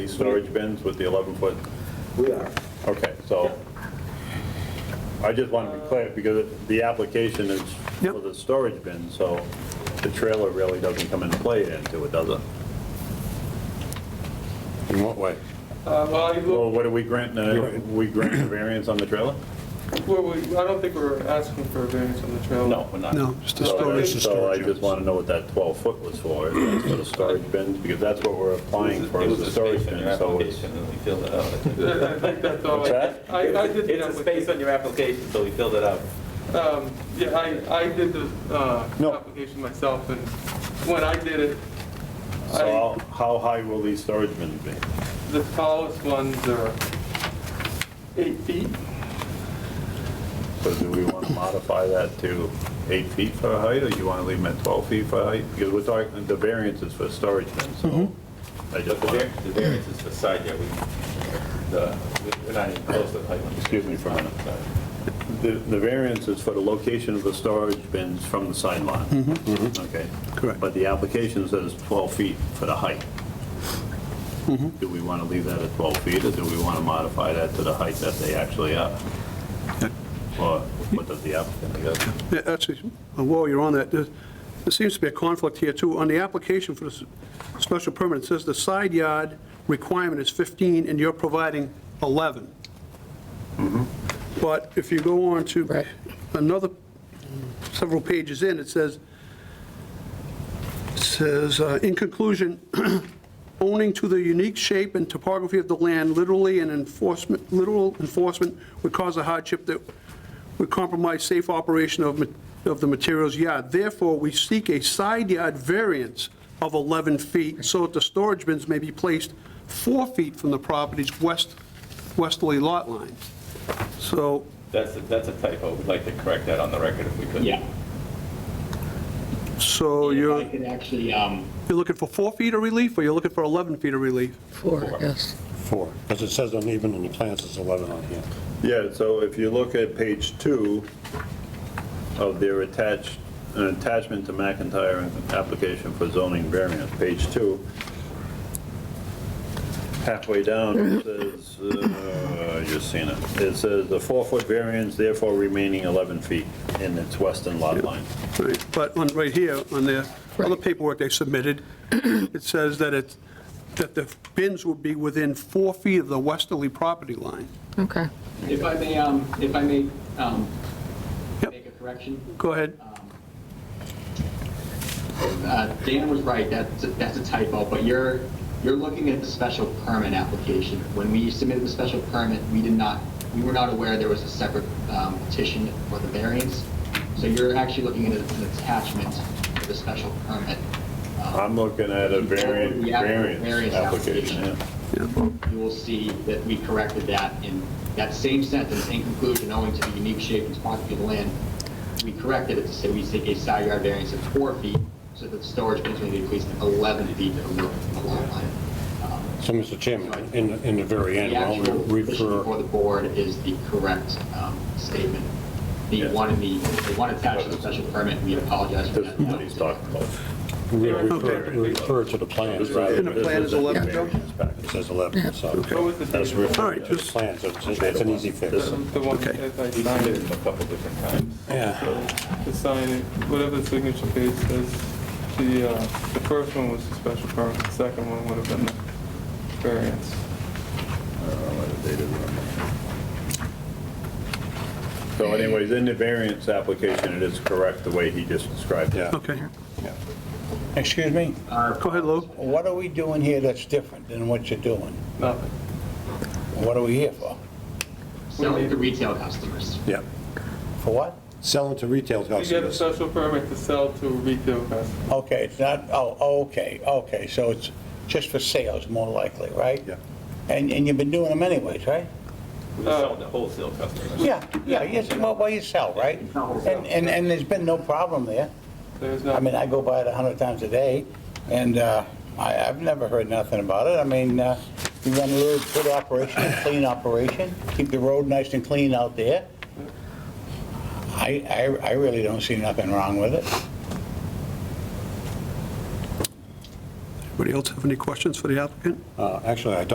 These storage bins with the 11-foot, We are. okay, so I just want to be clear, because the application is for Yep. the storage bin, so the trailer really doesn't come into play into it, does it? In what way? Uh, Well, you Well, look- what are we granting, uh, we granting a variance on the trailer? well, we- I don't think we're asking for a variance on the trailer. No, we're not. No, just the So, storage- so storage I units. just want to know what that 12-foot was for, if that's for the storage bins, because that's what we're applying for, It is was the a space storage in your bin, so it's... application, and we filled it out. I think. I I think that's all. I- What's I, I did the It's a space on your application, so we filled it out. applica- um, Yeah, I, I did the uh, No. application myself, and when I did it, I, So how- how high will these storage bins be? the tallest ones are eight feet. So do we want to modify that to eight feet for height, or you want to leave them at 12 feet for height? Because we're talking, the variance is for storage bins, so I But just the want, var- the variance is for side yard, we, the- we're not even close to the height limit. Excuse me for a minute. Sorry. the the variance is for the location of the storage bins from the side lot. Okay. Correct. But the application says 12 feet for the height. Do we want to leave that at 12 feet, or do we want to modify that to the height that they actually are? Or what does the applicant, I guess? Yeah, Actually, while you're on that, there there seems to be a conflict here, too. On the application for this special permit, it says the side yard requirement is 15, and you're providing 11. But if you go on to another, several pages in, it says, says, uh, "In conclusion, owning to the unique shape and topography of the land, literally and enforcement, literal enforcement would cause a hardship that would compromise safe operation of, ma- of the materials yard. Therefore, we seek a side yard variance of 11 feet so that the storage bins may be placed four feet from the property's west, westerly lot line. So, That's, a- that's a typo, we'd like to correct that on the record if we could. Yeah. so Oh, you're, I could actually, um, you're looking for four feet of relief, or you're looking for 11 feet of relief? Four, yes. Four, because it says on even in the plans, it's 11 on here. Yeah, so if you look at page two of their attached, an attachment to McIntyre application for zoning variance, page two, halfway down, it says, uh, I just seen it, it says the four-foot variance, therefore remaining 11 feet in its western lot line. Right, But on, right here, on the other paperwork they submitted, it says that it's, that the bins would be within four feet of the westerly property line. Okay. if I may, um, if I may, um, Yep. make a correction. Go ahead. Uh, Dan was right, that's, that's a typo, but you're, you're looking at the special permit application. When we submitted the special permit, we did not, we were not aware there was a separate um, petition for the variance. So you're actually looking at an attachment to the special permit. uh, I'm looking at a variance, Yeah, variance variance application, yeah. application. you will see that we corrected that in that same sentence, in conclusion, owing to the unique shape and topography of the land, we corrected it to say we seek a side yard variance of four feet, so that the storage bins may be placed at 11 feet of the lot line. Um, So, Mr. Chairman, in, the- in the very end, The I'll actual petition before refer, the board is the correct um, statement. The Yes. one in the, the one attached to the special permit, we apologize for This that. is what he's talking about. we'll refer refer to the plans, rather In the than- plan is 11, Joe? Variance package. it says 11, so, What was the That's date? referred All right, to. just, plans, it's it's an easy fix. The one that I We signed signed it, it a couple different times. Yeah, the sign it, whatever the signature page says, the, uh, the first one was the special permit, the second one would have been the variance. So anyways, in the variance application, it is correct the way he just described it. yeah. okay. Excuse me, Go ahead, Lou. what are we doing here that's different than what you're doing? Nothing. What are we here for? Selling to retail customers. Yeah. For what? Selling to retail You get a customers. special permit to sell to retail customers. Okay, it's not, oh, okay, okay, so it's just for sales more likely, right? Yeah. And, and you've been doing them anyways, right? We sold to wholesale customers. Yeah, yeah, yes, well, well, you sell, right? And, and, and there's been no problem there. There's I mean, nothing. I go by it a hundred times a day, and, uh, I, I've never heard nothing about it. I mean, uh, you run a really good operation, a clean operation, keep the road nice and clean out there. I, I, I really don't see nothing wrong with it. Anybody else have any questions for the applicant? Uh, Actually, I don't